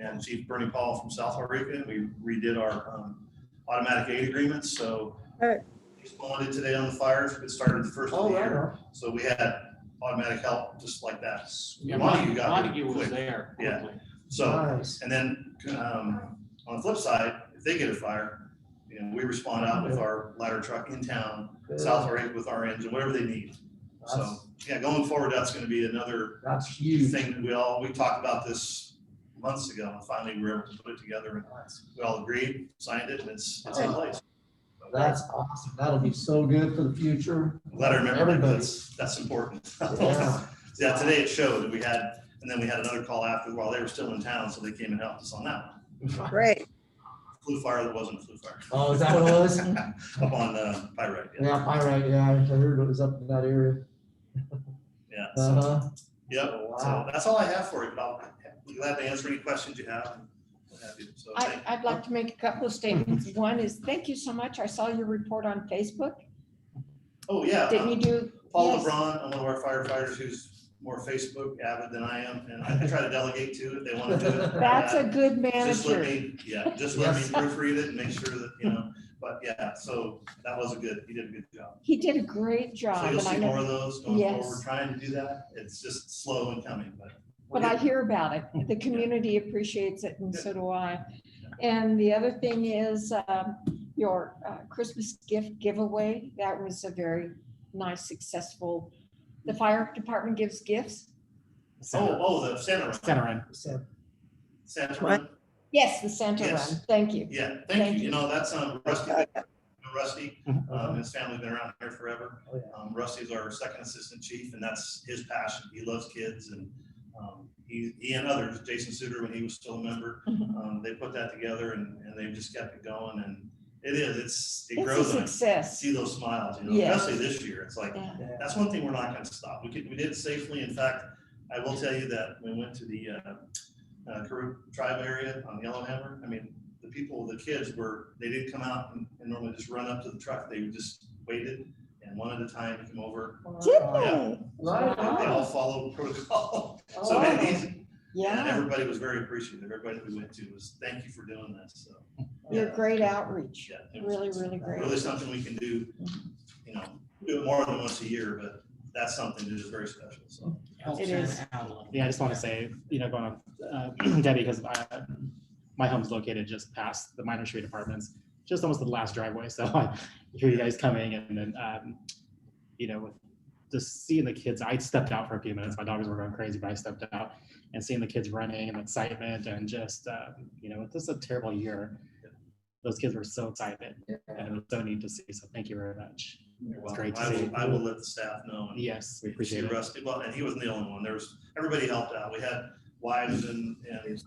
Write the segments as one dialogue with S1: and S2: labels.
S1: and Chief Bernie Paul from South Wairika. We redid our um, automatic aid agreements, so.
S2: Right.
S1: Responded today on the fires, it started the first of
S3: Oh,
S1: the
S3: right.
S1: year, so we had automatic help just like that.
S4: Yeah,
S1: Montague
S4: Montague,
S1: got there
S4: Montague was
S1: quick.
S4: there
S1: Yeah.
S4: quickly.
S1: So,
S3: Nice.
S1: and then, um, on the flip side, if they get a fire, you know, we respond out with our ladder truck in town,
S3: Good.
S1: South Lake with our engine, whatever they need. So,
S3: That's-
S1: yeah, going forward, that's gonna be another
S3: That's huge.
S1: thing that we all, we talked about this months ago, and finally we were able to put it together, and we all agreed, signed it, and it's, it's in place.
S3: That's awesome. That'll be so good for the future.
S1: Glad I remembered that,
S3: Everybody.
S1: that's, that's important.
S3: Yeah.
S1: Yeah, today it showed that we had, and then we had another call after while they were still in town, so they came and helped us on that one.
S2: Great.
S1: Flu fire that wasn't a flu fire.
S3: Oh, is that what it was?
S1: Up on, uh, Pyrite, yeah.
S3: Yeah, pyrite, yeah, I heard it was up in that area.
S1: Yeah, so,
S3: Uh-huh.
S1: yep, so
S3: Wow.
S1: that's all I have for you, but I'll be glad to answer any questions you have. and what have you. So,
S5: I, I'd like to make a couple of statements. One is, thank you so much. I saw your report on Facebook.
S1: oh, yeah.
S5: Didn't
S1: um,
S5: you do?
S1: Paul
S5: yes.
S1: LeBron, I'm one of our firefighters who's more Facebook avid than I am, and I try to delegate to if they want to do it.
S5: That's
S1: Yeah,
S5: a good
S1: Just let
S5: manager.
S1: me, yeah, just let me
S3: Yes.
S1: proofread it and make sure that, you know, but yeah, so that was a good, he did a good job.
S5: He did a great job.
S1: So you'll
S5: and I
S1: see
S5: know-
S1: more of those going forward. We're
S5: Yes.
S1: trying to do that. It's just slow and coming, but. we're
S5: But I
S1: getting
S5: hear about it. The community appreciates it and so do I. And the other thing is um, your uh, Christmas gift giveaway. That was a very nice, successful. The fire department gives gifts.
S1: Oh, oh, the Santa Run,
S4: Center in.
S3: So,
S1: Santa
S2: What?
S1: Run.
S5: Yes, the Santa
S1: Yes.
S5: Run. Thank you.
S1: Yeah,
S5: Thank
S1: thank you. You
S5: you.
S1: know, that's um, Rusty, Rusty, um,
S3: uh-huh.
S1: his family's been around here forever.
S3: Oh, yeah.
S1: Um, Rusty's our second assistant chief and that's his passion. He loves kids and, um, he, he and others, Jason Suter, when he was still a member,
S5: Mhm.
S1: um, they put that together and, and they've just kept it going and it is, it's, it
S5: It's a
S1: grows on,
S5: success.
S1: see those smiles, you know,
S5: Yes.
S1: especially this year. It's like,
S5: Yeah.
S3: Yeah.
S1: That's one thing we're not gonna stop. We could, we did safely. In fact, I will tell you that we went to the uh, uh, Karuk tribe area on Yellowhammer. I mean, the people, the kids were, they didn't come out and and normally just run up to the truck. They just waited and one at a time came over.
S5: Did
S1: Yeah.
S5: they?
S1: They
S3: Right.
S1: they all followed protocol. So
S5: Oh,
S1: it made it easy. and
S5: Yeah,
S1: everybody was very appreciative. Everybody that we went to was, thank you for doing this. So.
S5: your
S1: yeah,
S5: great outreach,
S1: yeah, it was-
S5: really, really
S1: Really
S5: great. Mm-hmm.
S1: something we can do, you know, do it more than once a year, but that's something that is very special. So.
S5: It is.
S4: Yeah, I just want to say, you know, going on, uh, Debbie, because my home's located just past the minor street apartments, just almost the last driveway, so I hear you guys coming and then, um, you know, with just seeing the kids, I stepped out for a few minutes, my dogs were going crazy, but I stepped out and seeing the kids running and excitement and just, uh, you know, this is a terrible year. Those kids were so excited and it was so neat to see, so thank you very much.
S1: You're
S4: It's
S1: welcome.
S4: great to
S1: I will-
S4: see.
S1: I will let the staff know. and
S4: Yes, we
S1: see
S4: appreciate it.
S1: Rusty, well, and he wasn't the only one. There was, everybody helped out. We had wives and, and you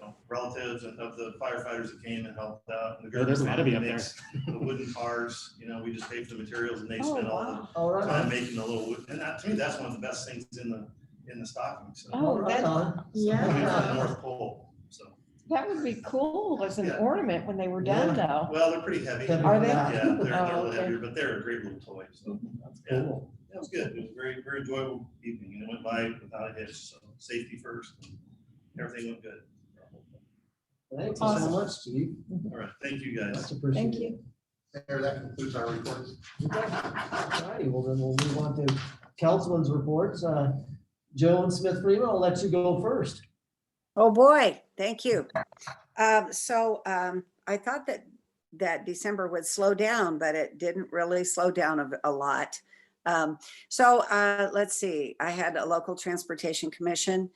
S1: know, relatives and of the firefighters that came and helped out. And the
S4: Yeah, there's a lot of you up there.
S1: mixed, The wooden cars, you know, we just paid for the materials and they
S5: Oh,
S1: spent all
S5: wow.
S3: All
S1: the time
S3: right.
S1: making the little wood. And that, to me, that's one of the best things in the, in the stocking. So.
S5: Oh,
S3: Right
S5: that-
S3: on.
S1: Coming from the
S5: Yeah.
S1: North Pole, so.
S5: That would be cool as an
S1: Yeah.
S5: ornament when they were done,
S3: Yeah.
S5: though.
S1: Well, they're pretty heavy.
S3: Heavy.
S5: Are they?
S1: Yeah, they're, they're a
S5: Oh,
S1: little
S5: okay.
S1: heavier, but they're a great little toy, so. yeah.
S3: Cool.
S1: That was good. It was a very, very enjoyable evening and it went by without a hitch. So safety first. and Everything went good.
S3: Thank you so
S5: Awesome.
S3: much, Steve.
S1: All right. Thank you guys.
S3: Much appreciated.
S5: Thank you.
S6: Mayor, that concludes our reports.
S3: Alrighty, well then we'll move on to councilman's reports. Uh, Joe and Smith Freeman, I'll let you go first.
S2: Oh, boy. Thank you. Um, So um, I thought that, that December would slow down, but it didn't really slow down a, a lot. Um, So uh, let's see, I had a local transportation commission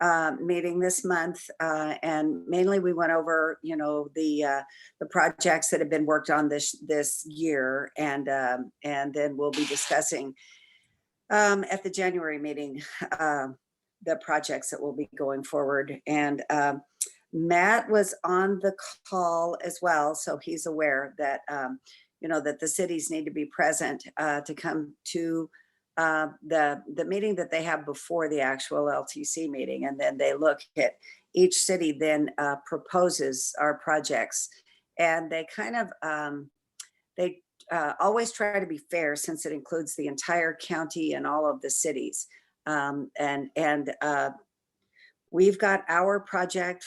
S2: uh, meeting this month. uh, And mainly we went over, you know, the, uh, the projects that have been worked on this, this year. And, um, and then we'll be discussing um, at the January meeting, um, the projects that will be going forward. And um, Matt was on the call as well, so he's aware that, um, you know, that the cities need to be present uh, to come to uh, the, the meeting that they have before the actual LTC meeting. And then they look at, each city then uh, proposes our projects. And they kind of, um, they uh, always try to be fair since it includes the entire county and all of the cities um, and, and, uh, we've got our project